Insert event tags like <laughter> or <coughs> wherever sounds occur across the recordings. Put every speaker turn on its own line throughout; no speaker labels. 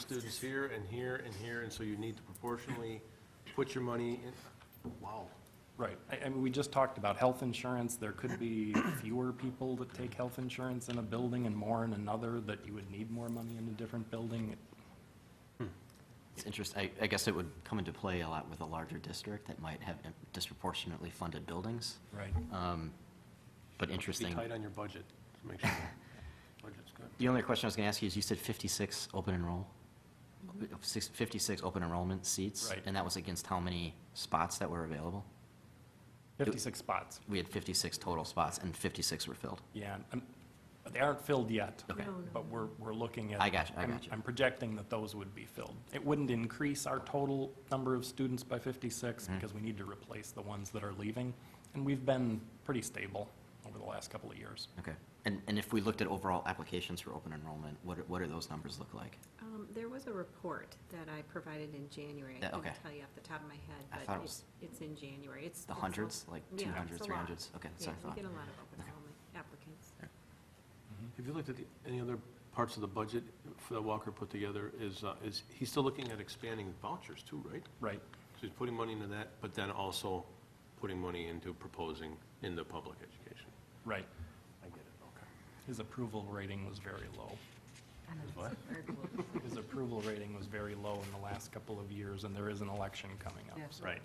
students here and here and here, and so you need to proportionally put your money in, wow.
Right, I, I mean, we just talked about health insurance, there could be fewer people that take health insurance in a building and more in another, that you would need more money in a different building.
It's interesting, I, I guess it would come into play a lot with a larger district that might have disproportionately funded buildings,
Right.
um, but
Be
interesting.
tight on your budget, to make sure the budget's good.
The only question I was gonna ask you is, you said fifty-six open enroll, six- fifty-six open enrollment seats?
Right.
And that was against how many spots that were available?
Fifty-six spots,
We had fifty-six total spots, and fifty-six were filled.
yeah, and, but they aren't filled yet.
Okay. No,
But we're, we're looking at.
I got you, I
I'm-
got you.
I'm projecting that those would be filled. It wouldn't increase our total number of students by
Mm-hmm.
fifty-six, because we need to replace the ones that are leaving, and we've been pretty stable over the last couple of years.
Okay. And, and if we looked at overall applications for open enrollment, what, do- what do those numbers look like?
Um, There was a report that I provided in January.
Yeah,
I couldn't
okay.
tell you off the top of my
I
head,
thought
but
it
it's, it's in January. It's.
The
it's a-
hundreds, like
yeah,
two
it's
hundreds,
a
three
lot.
hundreds? Okay,
Yeah,
sorry, I
we
thought.
get a lot of open
Okay.
enrollment applicants.
Have you looked at the- any other parts of the budget for that Walker put together? Is, uh, is, he's still looking at expanding vouchers too, right?
Right,
So he's putting money into that, but then also putting money into proposing into public education.
right.
I get it,
His approval rating was very low.
okay.
His approval rating was very low in the last couple of years, and there is an election coming up.
Yes.
so-
Right,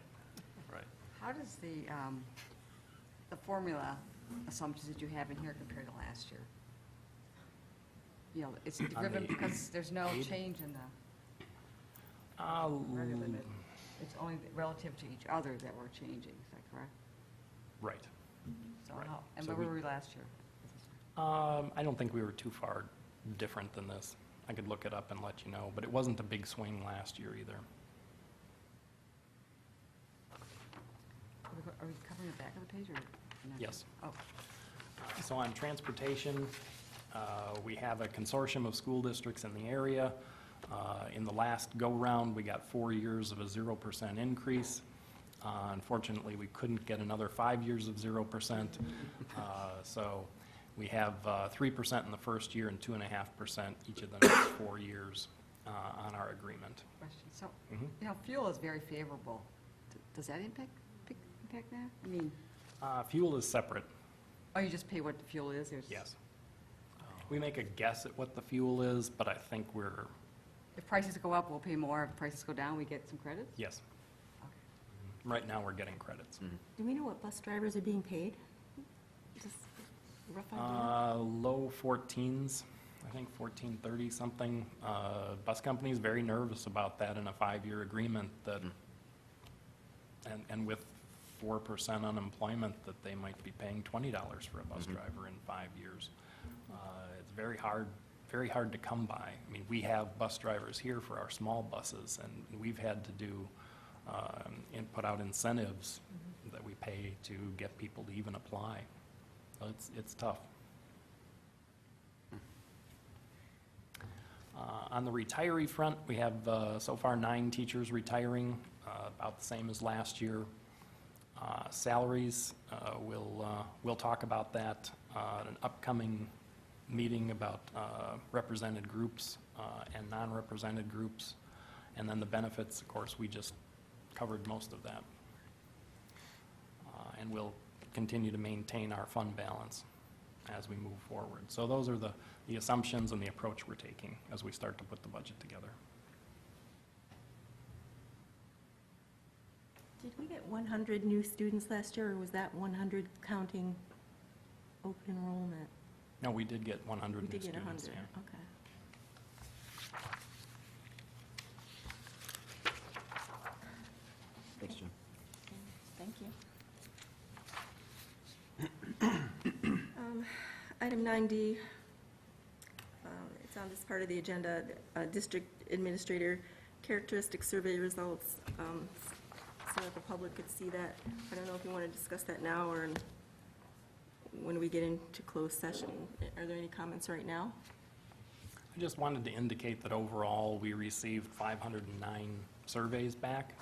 right.
How does the, um, the formula assumptions that you have in here compare to last year? You know, it's driven
the
because there's no
aid?
change in the
Uh,
regular, bit. it's only relative to each other that we're changing, is that correct?
Right.
So
Right.
how, and
So
where were
we-
we last year?
Um, I don't think we were too far different than this. I could look it up and let you know, but it wasn't a big swing last year either.
Are we go- are we covering the back of the page or? no?
Yes.
Oh,
So on transportation, uh, we have a consortium of school districts in the area. Uh, In the last go-round, we got four years of a 0% increase. Uh, Unfortunately, we couldn't get another five years of 0%. Uh, So we have uh, 3% in the first year and 2.5% each of the next <coughs> four years uh, on our agreement.
question. So,
Mm-hmm.
you know, fuel is very favorable. D- Does that impact, pic- impact that? I mean,
Uh, Fuel is separate,
oh, you just pay what the fuel is? there's-
yes. We make a guess at what the fuel is, but I think we're,
If prices go up, we'll pay more. If prices go down, we get some credits?
yes,
Okay.
right now, we're getting credits.
Mm-hmm.
Do we know what bus drivers are being paid? Just a rough idea?
Uh, Low 14s, I think 1430 something. Uh, Bus company's very nervous about that in a five-year agreement that, and, and with 4% unemployment, that they might be paying $20 for a bus driver in five years. Uh, It's very hard, very hard to come by. I mean, we have bus drivers here for our small buses, and we've had to do, um, and put out incentives that we pay to get people to even apply. So It's, it's tough. Uh, On the retiree front, we have uh, so far nine teachers retiring, uh, about the same as last year. Uh, Salaries, uh, we'll, uh, we'll talk about that uh, at an upcoming meeting about uh, represented groups uh, and non-represented groups. And then the benefits, of course, we just covered most of that. Uh, and we'll continue to maintain our fund balance as we move forward. So those are the, the assumptions and the approach we're taking as we start to put the budget together.
Did we get 100 new students last year, or was that 100 counting open enrollment?
No, we did get
We
100 new
did get
students.
100,
yeah.
okay.
Thanks, Jim.
Thank you. Um, Item 9D, um, it's on this part of the agenda, uh, District Administrator Characteristic Survey Results, um, so that the public could see that. I don't know if you want to discuss that now or in- when we get into closed session. Are there any comments right now?
I just wanted to indicate that overall, we received 509 surveys back,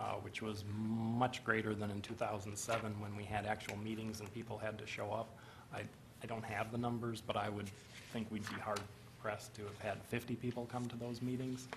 uh, which was much greater than in 2007 when we had actual meetings and people had to show up. I, I don't have the numbers, but I would think we'd be hard, impressed to have had 50 people come to those meetings.